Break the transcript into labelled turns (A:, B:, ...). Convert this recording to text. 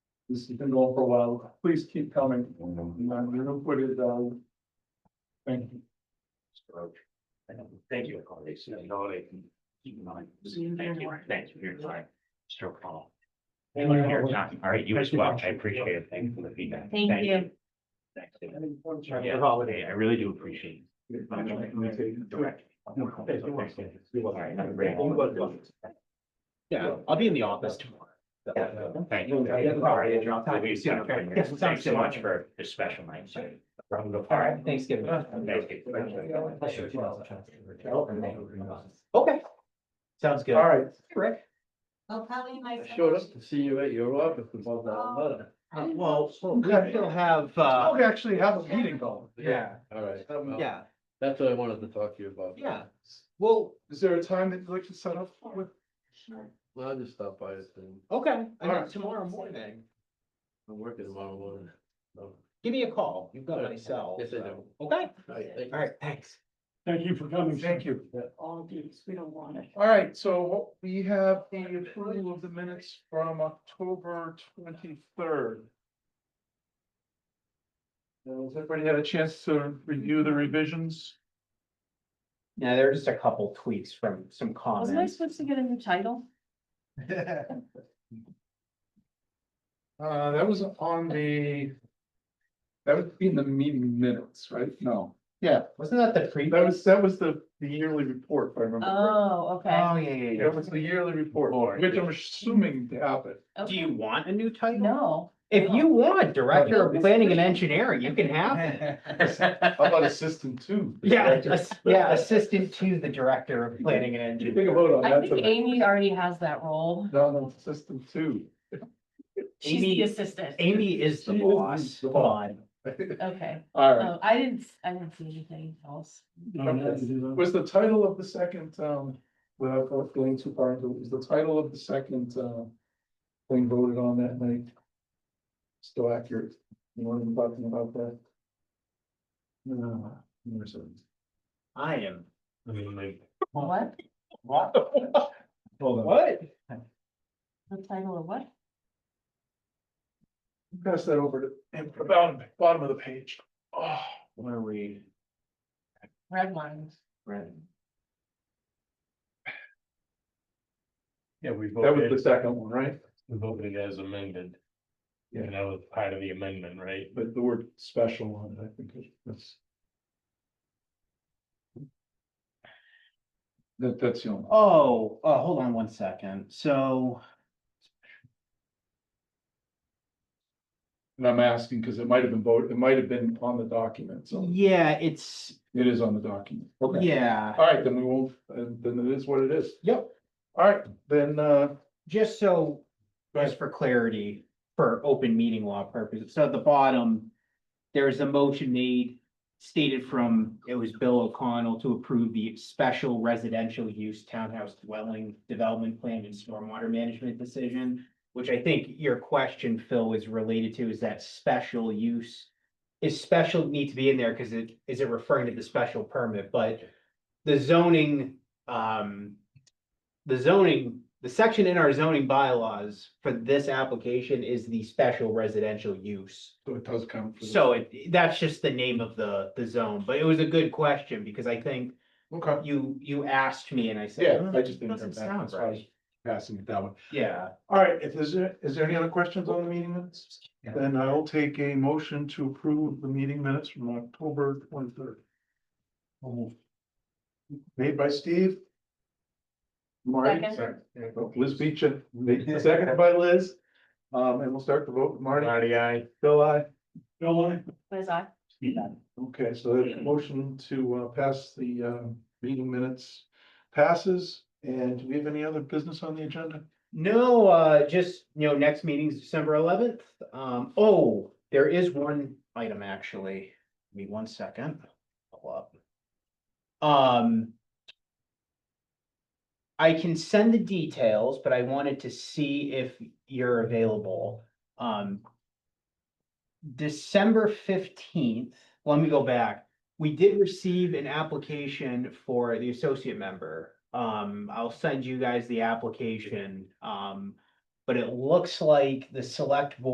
A: This has been going for a while. Please keep coming. And I'm gonna put it down. Thank you.
B: Thank you, colleagues, you know, they can keep in mind. Thank you, thank you for your time, Mr. O'Connell. Thank you for your time. All right, you as well. I appreciate it. Thank you for the feedback.
C: Thank you.
B: Thanks. Yeah, holiday. I really do appreciate. it. Direct. All right, have a great one.
D: Yeah, I'll be in the office tomorrow.
B: Thank you. All right, John, we've seen it. Thanks so much for the special night. so. All right.
D: Uh, Thanksgiving.
B: Thank you.
D: Okay. Sounds good.
A: All right.
D: Rick.
C: Oh, Kelly and I.
E: Showed up to see you at your office about that letter.
C: I didn't know.
D: Uh, Well, we still have, uh,
A: We actually have a meeting going.
D: Oh, yeah,
E: All right,
D: yeah,
E: that's what I wanted to talk to you about.
D: yeah. Well,
A: Is there a time that you'd like to set up with?
C: Sure.
E: Well, I'll just stop by this thing.
D: okay, I mean,
A: Alright.
D: tomorrow morning,
E: I'm working tomorrow morning. So,
D: give me a call. You've got my cell.
E: Yes, I do.
D: so- Okay,
E: all right, thank you.
D: all right, thanks.
A: Thank you for coming. Thank you.
C: All these, we don't want it.
A: All right, so we have the approval of the minutes from October twenty-third. Has everybody had a chance to review the revisions?
D: Yeah, there are just a couple tweaks from some
C: Wasn't I
D: comments.
C: supposed to get a new title?
A: Uh, that was on the. That would be in the meeting minutes, right? No, yeah,
D: Wasn't that the pre?
A: that was, that was the, the yearly report, if I remember. correctly.
C: Oh, okay.
D: Oh, yeah, yeah, yeah.
A: That was the yearly report,
D: Report,
A: which I'm
D: yeah.
A: assuming happened.
D: Do
C: Okay.
D: you want a new title?
C: No.
D: If you want, Director of
C: No.
D: Planning and Engineering, you can have it.
A: How about assistant two?
D: Yeah, ass- yeah, assistant to the Director of Planning and
A: You
D: Engineering.
A: think about on
C: I
A: that.
C: think
A: tonight.
C: Amy already has that role.
A: No, no, assistant two.
C: She's
D: Amy-
C: the assistant.
D: Amy is the
A: She is
D: boss,
A: the
D: come on.
C: Okay.
A: All right.
C: Oh, I didn't, I didn't see anything else.
A: Oh, Was the title of the second, um, without going too far into, it, was the title of the second, uh, thing voted on that night? Still accurate, you know what I'm talking about that? No, there's a-
D: I am.
C: What?
D: What?
A: hold on,
D: What?
C: The title of what?
A: pass that over to, and about the bottom of the page. Oh,
D: Where are we?
C: Red lines.
F: Yeah, we
A: that was the
F: voted,
A: second one, right?
F: we voted as amended.
A: Yeah.
F: And that was part of the amendment, right?
A: But the word special on it, I think is- that's. That, that's the only.
D: Oh, uh, hold on one second, so.
A: And I'm asking because it might have been voted, it might have been on the document, so
D: Yeah, it's,
A: it is on the document. Okay.
D: yeah,
A: All right, then we won't, uh, then it is what it is.
D: yep,
A: All right, then, uh,
D: just so,
A: Go
D: just for clarity, for open meeting law purposes, so at the bottom. There is a motion made stated from, it was Bill O'Connell to approve the special residential use townhouse dwelling development plan and stormwater management decision. Which I think your question, Phil, is related to, is that special use? Is special need to be in there, cause it, is it referring to the special permit, but the zoning, um. The zoning, the section in our zoning bylaws for this application is the special residential use.
A: so it does come. for the-
D: So it, that's just the name of the, the zone, but it was a good question because I think
A: Okay,
D: you, you asked me and I said.
A: yeah,
D: "Hmm,
A: I just didn't.
D: Doesn't
A: have that,
D: sound
A: that's why I was
D: right.
A: Passing it that way.
D: Yeah,
A: All right, if there's, a- is there any other questions on the meeting minutes?
D: Yeah.
A: Then I will take a motion to approve the meeting minutes from October twenty-third. Made by Steve. Marty,
C: Second.
A: Liz Beecham, second by Liz. Um, and we'll start the vote with Marty.
F: Marty, I.
A: Bill, I. Bill, I.
C: Was I?
A: Okay, so the motion to uh, pass the uh, meeting minutes passes. And do we have any other business on the agenda?
D: no, uh, just, you know, next meeting's December eleventh. Um, oh, there is one item actually. Give me one second. Pull up. Um. I can send the details, but I wanted to see if you're available. Um. December fifteenth, let me go back. We did receive an application for the associate member. Um, I'll send you guys the application. Um, but it looks like the select board.